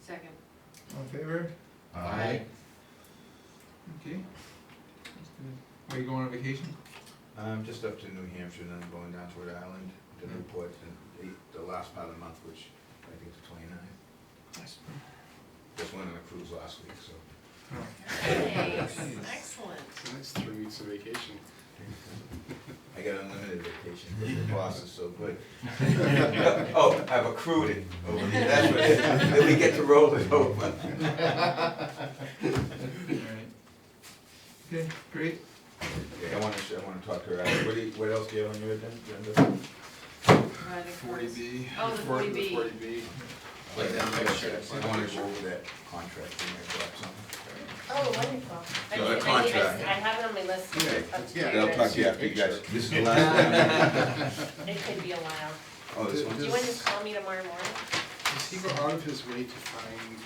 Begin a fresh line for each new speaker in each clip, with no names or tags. Second.
All in favor?
Aye.
Okay. Are you going on vacation?
Um, just up to New Hampshire, and then going down to Rhode Island, to Newport, and the, the last part of the month, which I think is twenty-nine.
Yes.
Just went on a cruise last week, so.
Oh.
Nice,
Nice.
excellent.
That's three weeks of vacation.
I got unlimited vacation, because the boss is so good. Oh, I've accrued it, over the- that's what, it- then we get to roll it over.
Alright. Okay, great.
Yeah, I wanna, sh- I wanna talk to her, Uh, what do you, what else do you have on your agenda?
Right, of
Forty
course.
B.
Oh, the 40B.
Forty B.
Like that,
Like that,
I wanna go over that contract, you might drop something.
Oh, wonderful. I did- I
No, that
did- I
contract.
s- I have it on my list.
Okay.
up to
Yeah,
date.
I'll talk to you after you guys, this is the last.
It could be a while.
Oh, this one?
Do you want to just call me tomorrow morning?
Does he go out of his way to find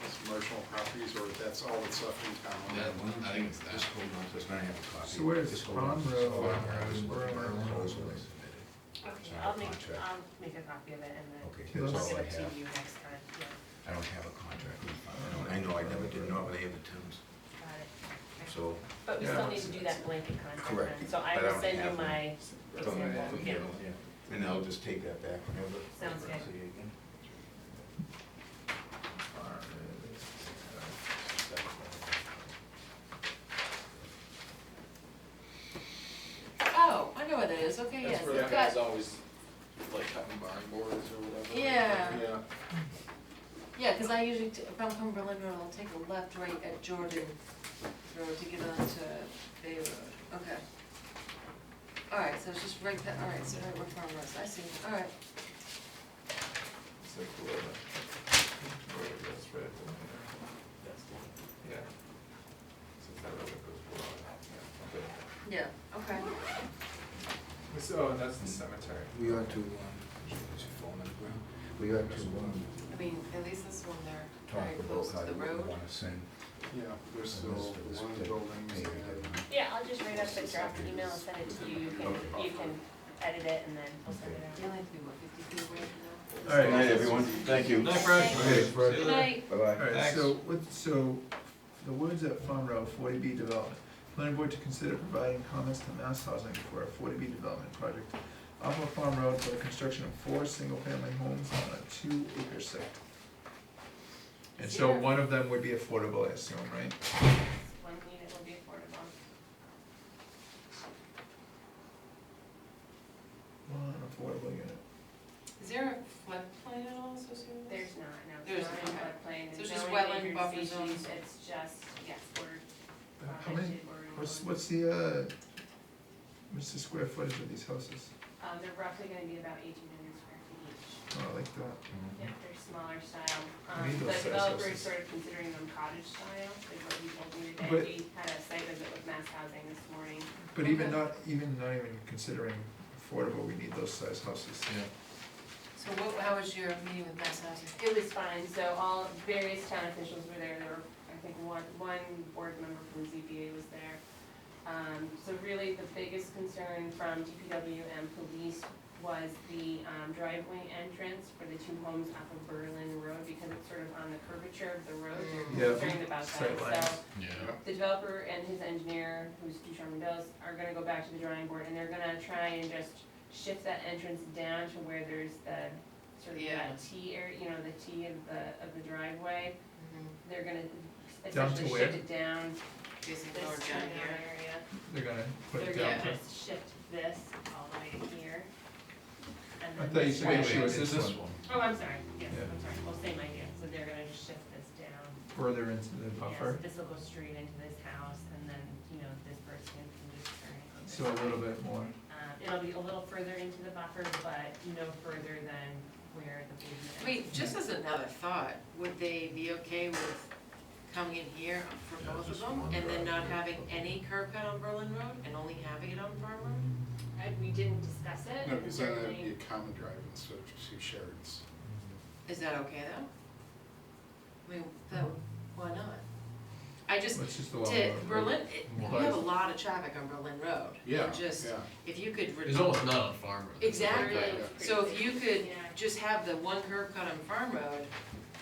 those marginal properties, or that's all that's left in town?
Yeah, I think it's that.
Just hold on, just gonna have a copy.
So where is
Just hold on.
Bronroe?
Just hold on, where I was-
Where am I?
where I was when I submitted.
Okay,
Sorry,
I'll make,
contract.
I'll make a copy of it and then
Okay,
Yes.
that's
I'll
all
give
I
it to
have.
you next time. Yeah,
I don't have a contract. with Bob. I don't- I know I never did, normally I have the terms,
got it. Okay.
so.
But we
Yeah.
still need to do that blanket contract
Correct.
then, so I
But I
will
don't
send you
have one.
my
Don't have
example.
them
Yeah.
here, yeah. And I'll just take that back whenever.
Sounds good.
See you again. All right.
Oh, I know what that is, okay, yes,
That's where that
I've
guy's
got,
always, like, cutting barn boards or whatever.
Yeah.
Yeah.
yeah, cause I usually, t- if I'm Cumberland Road, I'll take a left right at Jordan Road to get onto Bay Road, okay. Alright, so it's just right there, alright, so right where Farm Road, is. I see, alright,
It's like whoever- whoever that's right at the window. Yeah. So if that road goes below that, yeah. Okay.
yeah, okay.
Oh, that's the cemetery.
We ought to, um, is your phone on the ground? We ought to, um,
I mean, at least this one, they're
talk
very close
about how
to the
you would
road.
wanna send.
Yeah, there's still
this to this
one
big
building,
thing.
Yeah, I'll just write up the draft email and send it to you. You can, you can edit it and then we'll send it out.
You only have to be, what, fifty feet away from
All right, good night, everyone, thank you.
Night, Fred.
Okay, Fred.
Uh,
See you
there?
later.
Night.
Bye-bye.
Alright, so what, so the woods at Farm Road, forty B development. Planning board to consider providing comments to Mass Housing for a forty B development project off of Farm Road for the construction of four single-family homes on a two-acre site. And so
Yeah.
one of them would be affordable, I assume, right?
One unit will be affordable.
One affordable unit.
Is there a floodplain at all associated with
There's not, no,
There's
it's not in
not.
floodplain,
So it's
there's
just
no
wetland
endangered
buffer
species,
zones.
it's just, yes, we're
Uh, How many,
protected, we're.
what's,
in-
what's the, uh, what's the square footage of these houses?
Um, they're roughly gonna be about eighteen hundred square feet each,
Oh, I like that.
yeah, they're smaller style, um,
need
the
those size
developer
houses.
is sort of considering them cottage style, like what he told me
But-
today, we had a site visit with Mass Housing this morning.
But even not, even not even considering affordable, we need those size houses.
Yeah.
So what, how was your meeting with Mass Housing?
It was fine, so all various town officials were there, there were, I think, one, one board member from ZBA was there. Um, so really, the biggest concern from DPW and police was the um, driveway entrance for the two homes off of Berlin Road, because it's sort of on the curvature of the road,
Mm. Yeah,
they're concerned about
straight
that,
lines.
so
Yeah.
the developer and his engineer, who's Ducharme Bells, are gonna go back to the drawing board and they're gonna try and just shift that entrance down to where there's the sort of
Yeah.
that T area, you know, the T of the, of the driveway.
Mm-hmm.
They're gonna
Down to
essentially
where?
shift it down
Jason
this
George
turnaround
down here.
area.
They're gonna put it
They're
down.
gonna
to-
just shift this all the way to here. And
I
then
thought you
this
said
way-
she was
Is this
this
one?
Oh, I'm sorry, yes,
Yeah.
I'm sorry, well, same idea, so they're gonna just shift this down.
further into the
Yes,
buffer,
this will go straight into this house, and then, you know, this person can just turn it on.
so a little bit more.
Um, it'll be a little further into the buffer, but no further than where the pavement.
Wait, just as another thought, would they be okay with coming in here for
Yeah,
both of
just
them?
one
And then not
drive.
having any curb cut on Berlin Road and only having it on Farm Road?
I, we didn't discuss it.
No, because then that'd be
Certainly-
a common drive instead of two shards.
Is that okay though? I mean, that, why not? I just,
Let's just allow.
to
it.
Berlin, it- you
Why?
have a lot of traffic on Berlin Road.
Yeah,
Just-
yeah.
If you could.
There's almost none on farm roads.
Exactly,
Really
so if you could
Yeah.
just have the one curb cut on Farm Road